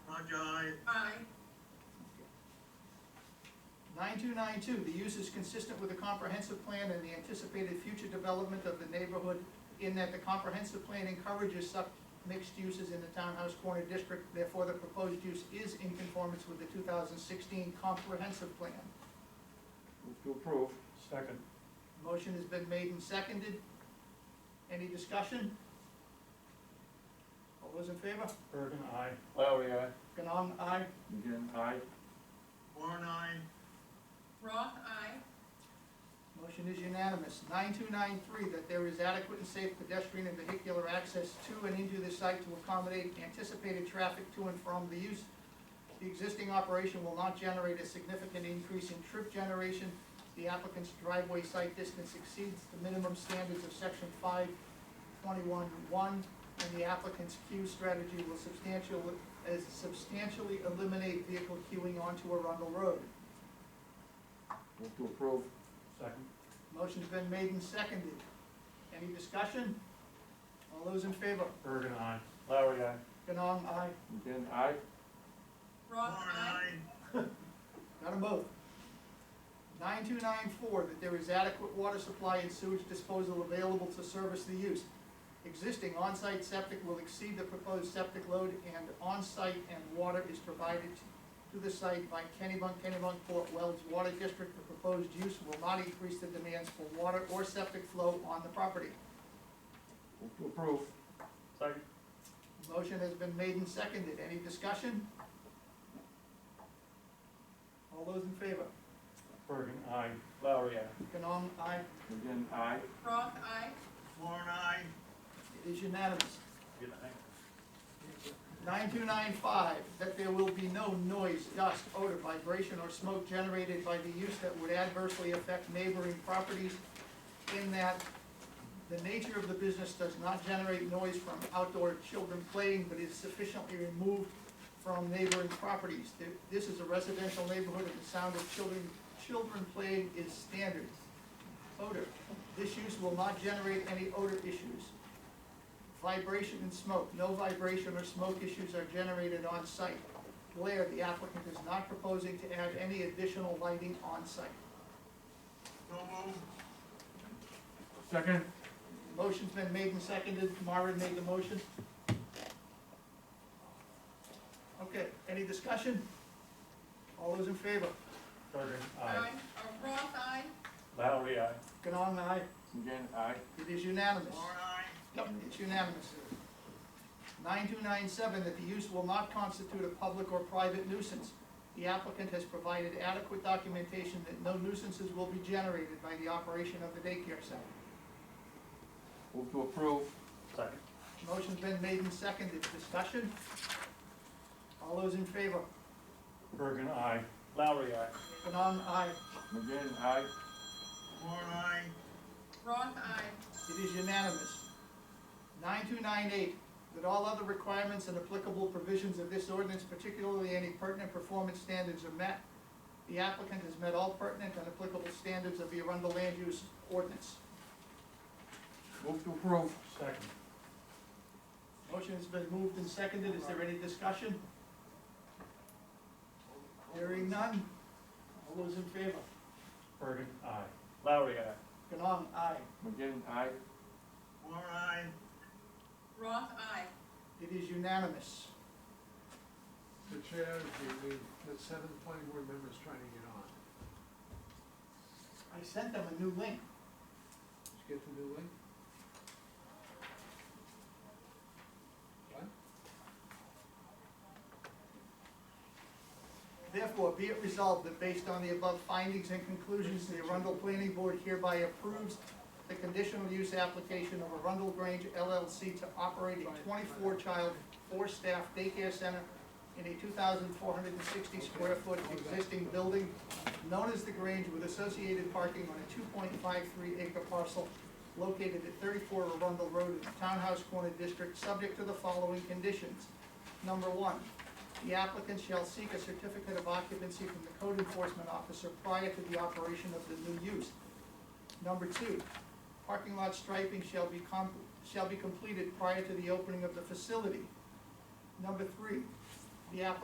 Aye. Aye. Nine-two-nine-two, the use is consistent with the comprehensive plan and the anticipated future development of the neighborhood in that the comprehensive plan encourages such mixed uses in the Townhouse Corner District, therefore the proposed use is in conformance with the two thousand sixteen comprehensive plan. Move to approve. Second. Motion has been made and seconded. Any discussion? All those in favor? Bergen, aye. Lowry, aye. Ganong, aye. McGinn, aye. Warren, aye. Roth, aye. Motion is unanimous. 9293, that there is adequate and safe pedestrian and vehicular access to and into the site to accommodate anticipated traffic to and from the use. The existing operation will not generate a significant increase in trip generation. The applicant's driveway site distance exceeds the minimum standards of section 521.1, and the applicant's queue strategy will substantially, as substantially eliminate vehicle queuing onto Arundel Road. Move to approve. Second. Motion's been made and seconded. Any discussion? All those in favor? Bergen, aye. Lowry, aye. Ganong, aye. McGinn, aye. Roth, aye. Got 'em both. Nine-two-nine-four, that there is adequate water supply and sewage disposal available to service the use. Existing on-site septic will exceed the proposed septic load, and on-site and water is provided to the site by Kennybunk, Kennybunk Fort Wells Water District. The proposed use will not increase the demands for water or septic flow on the property. Move to approve. Second. Motion has been made and seconded. Any discussion? All those in favor? Bergen, aye. Lowry, aye. Canong, aye. McGinn, aye. Roth, aye. Warren, aye. It is unanimous. Good night. 9295, that there will be no noise, dust, odor, vibration, or smoke generated by the use that would adversely affect neighboring properties in that the nature of the business does not generate noise from outdoor children playing, but is sufficiently removed from neighboring properties. Th- This is a residential neighborhood and the sound of children, children playing is standard. Odor, this use will not generate any odor issues. Vibration and smoke, no vibration or smoke issues are generated on site. Glare, the applicant is not proposing to add any additional lighting on site. So move. Second. Motion's been made and seconded, Marvin made the motion. Okay, any discussion? All those in favor? Bergen, Aye. Uh, Roth, aye. Lowry, aye. Ganong, aye. McGinn, aye. It is unanimous. Warren, aye. Yep, it's unanimous. Nine-two-nine-seven, that the use will not constitute a public or private nuisance. The applicant has provided adequate documentation that no nuisances will be generated by the operation of the daycare center. Move to approve. Second. Motion's been made and seconded, discussion? All those in favor? Bergen, aye. Lowry, aye. Benon, aye. McGinn, aye. Warren, aye. Roth, aye. It is unanimous. Nine-two-nine-eight, that all other requirements and applicable provisions of this ordinance, particularly any pertinent performance standards are met. The applicant has met all pertinent and applicable standards of the Arundel Land Use Ordinance. Move to approve. Second. Motion has been moved and seconded, is there any discussion? Hearing none, all those in favor? Bergen, aye. Lowry, aye. Ganong, aye. McGinn, aye. Warren, aye. Roth, aye. It is unanimous. The chair, the, the, the seven planning board members trying to get on. I sent them a new link. Did you get the new link? What? Therefore, be it resolved that based on the above findings and conclusions, the Arundel Planning Board hereby approves the conditional use application of Arundel Grange LLC to operate a twenty-four child, four staff daycare center in a two thousand four hundred and sixty square foot existing building known as the Grange with associated parking on a two point five three acre parcel located at thirty-four Arundel Road in the Townhouse Corner District, subject to the following conditions. Number one, the applicant shall seek a certificate of occupancy from the code enforcement officer prior to the operation of the new use. Number two, parking lot striping shall be com, shall be completed prior to the opening of the facility. Number three, the applicant